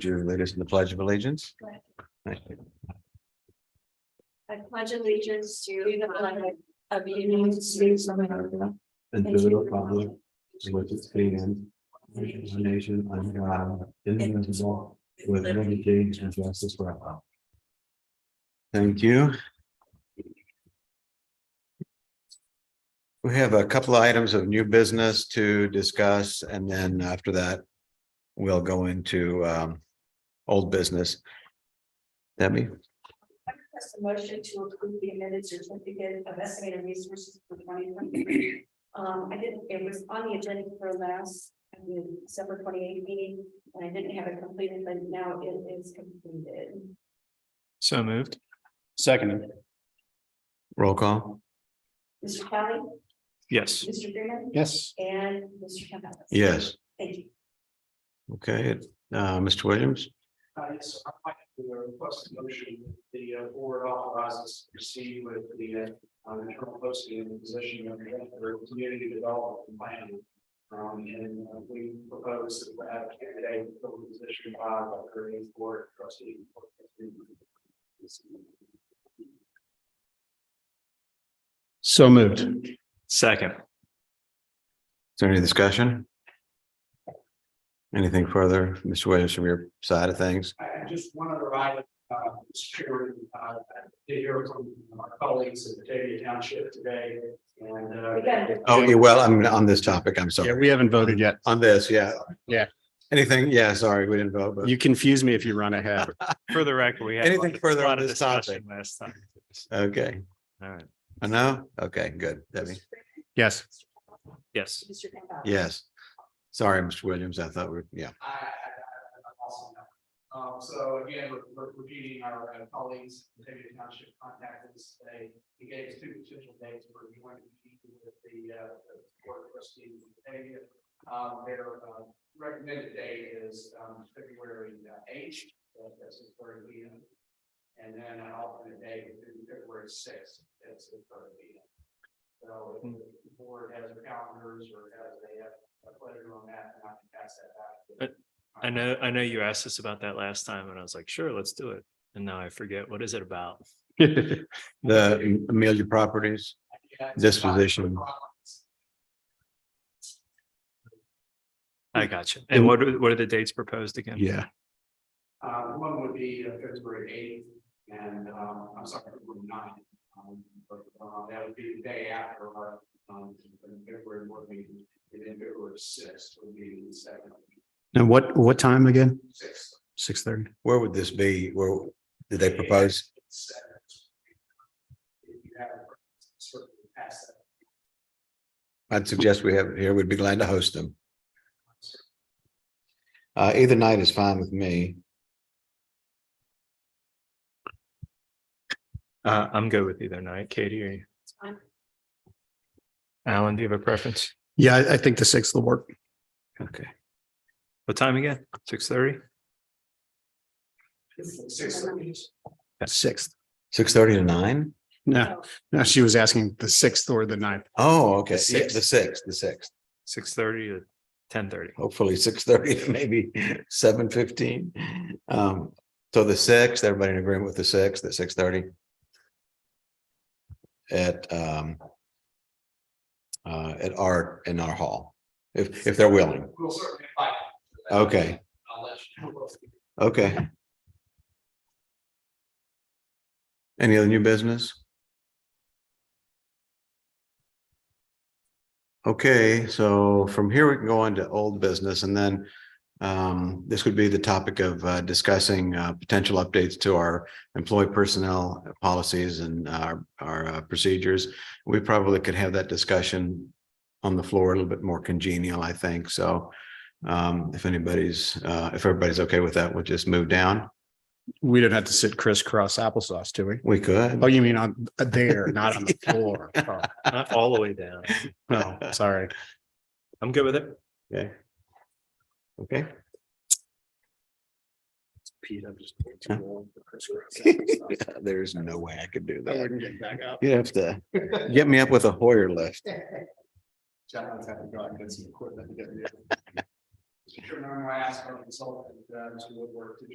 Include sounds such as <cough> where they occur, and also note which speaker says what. Speaker 1: Would you lead us in the pledge of allegiance?
Speaker 2: Go ahead.
Speaker 1: Thank you.
Speaker 2: I pledge allegiance to the flag of the United States of America.
Speaker 1: And to the republic for which it stands, which is a nation under God, indivisible, with liberty and justice for all. Thank you. We have a couple of items of new business to discuss, and then after that, we'll go into um old business. Debbie,
Speaker 2: I request a motion to approve the amended certificate of estimated resources for twenty twenty. Um, I didn't, it was on the agenda for last, I mean, December twenty eighth meeting, and I didn't have it completed, but now it is completed.
Speaker 3: So moved. Seconded.
Speaker 1: roll call.
Speaker 2: Mr. Kelly,
Speaker 3: Yes.
Speaker 2: Mr. Freeman,
Speaker 3: Yes.
Speaker 2: and Mr. Campbell.
Speaker 1: Yes,
Speaker 2: Thank you.
Speaker 1: okay, uh, Mr. Williams,
Speaker 4: Uh, yes, I might do a request a motion, that the uh, board authorizes to proceed with the uh, internal posting and position of director of community development and planning. Um, and uh, we propose that we have candidate for the position by the current board trustee.
Speaker 3: So moved. Second.
Speaker 1: is there any discussion? Anything further, Mr. Williams, from your side of things?
Speaker 4: Uh, And just one other item, uh, Mr. Chairman, uh, I did hear from our colleagues at Batavia Township today and. uh,
Speaker 2: We got it.
Speaker 1: Oh, yeah, well, I'm on this topic, I'm
Speaker 3: Yeah,
Speaker 1: sorry,
Speaker 3: we haven't voted yet.
Speaker 1: on this, yeah.
Speaker 3: Yeah.
Speaker 1: Anything, yeah, sorry, we didn't vote, but
Speaker 3: You confuse me if you run ahead.
Speaker 5: For the record, we had.
Speaker 1: Anything further on this
Speaker 5: discussion Last time.
Speaker 1: okay,
Speaker 5: All right.
Speaker 1: I know, okay, good, Debbie,
Speaker 2: Mr. Freeman,
Speaker 3: <laughs> Yes.
Speaker 2: Mr. Campbell,
Speaker 5: Yes.
Speaker 2: Mr. Campbell.
Speaker 1: yes. Sorry, Mr. Williams, I thought we, yeah,
Speaker 4: I, I, I I also know. Um, so again, we're, we're repeating our uh, colleagues, in Batavia Township contacted us today. He gave us two potential dates for joining the meeting with the, uh, the board of trustees in Batavia. Um, their, uh, recommended date is, um, February eighth, that's his third meeting. And then an alternate date would be February sixth, that's his third meeting. So if the board has calendars or has a, uh, a pleasure on that, then I can pass that back. to-
Speaker 5: I know, I know you asked us about that last time and I was like, sure, let's do it. And now I forget, what is it about?
Speaker 1: the Amelia Properties,
Speaker 4: Yeah, it's
Speaker 1: Disposition.
Speaker 4: not-
Speaker 5: I got you. And what, are- what are the dates proposed again?
Speaker 3: Yeah.
Speaker 4: Uh, one would be uh, February eighth and, um, I'm sorry, February ninth. Um, but, uh, that would be the day after our, um, February board meeting, and then February sixth would be the second,
Speaker 3: And what, what time again?
Speaker 4: sixth.
Speaker 3: Six thirty.
Speaker 1: where would this be, where, did they propose?
Speaker 4: Seventh. If you have, sort of pass that.
Speaker 1: I'd suggest we have it here. We'd be glad to host them. Uh, either night is fine with me.
Speaker 5: Uh, I'm good with either night. Katie, are you?
Speaker 2: fine.
Speaker 5: Alan, do you have a preference?
Speaker 3: Yeah, I, I think the sixth will work.
Speaker 5: Okay. What time again? Six thirty?
Speaker 4: Six,
Speaker 3: Sixth.
Speaker 1: Six thirty to nine?
Speaker 3: No, no, she was asking the sixth or the ninth.
Speaker 1: Oh, okay.
Speaker 3: The
Speaker 1: Yeah, The
Speaker 3: sixth.
Speaker 1: sixth, the sixth.
Speaker 5: Six thirty to ten thirty?
Speaker 1: Hopefully six thirty to maybe seven fifteen. Um, so the sixth, everybody in agreement with the sixth, at six thirty? At um. Uh, at our, in our hall, if if they're willing.
Speaker 4: we'll certainly invite. you.
Speaker 1: Okay,
Speaker 4: I'll let you know.
Speaker 1: okay. Any other new business? Okay, so from here we can go on to old business and then um, this would be the topic of uh, discussing uh, potential updates to our employee personnel policies and our, our uh, procedures. We probably could have that discussion on the floor a little bit more congenial, I think. So um, if anybody's, uh, if everybody's okay with that, we'll just move down.
Speaker 3: We don't have to sit crisscross applesauce, do we?
Speaker 1: We
Speaker 3: Oh,
Speaker 1: could.
Speaker 3: you mean on uh, there, not on the floor. Oh,
Speaker 5: Not Uh, all the way down.
Speaker 3: No, <laughs> sorry.
Speaker 5: I'm good with it.
Speaker 1: Yeah. <laughs> Okay.
Speaker 3: Pete, I'm just
Speaker 1: too
Speaker 3: long for
Speaker 1: There's no way I could do that.
Speaker 3: get back up.
Speaker 1: You'd have to get me up with a Hoyer lift.
Speaker 4: John's having to go out and get some equipment. Chairman, I'm going to ask our consultant, uh, Mr. Woodward, to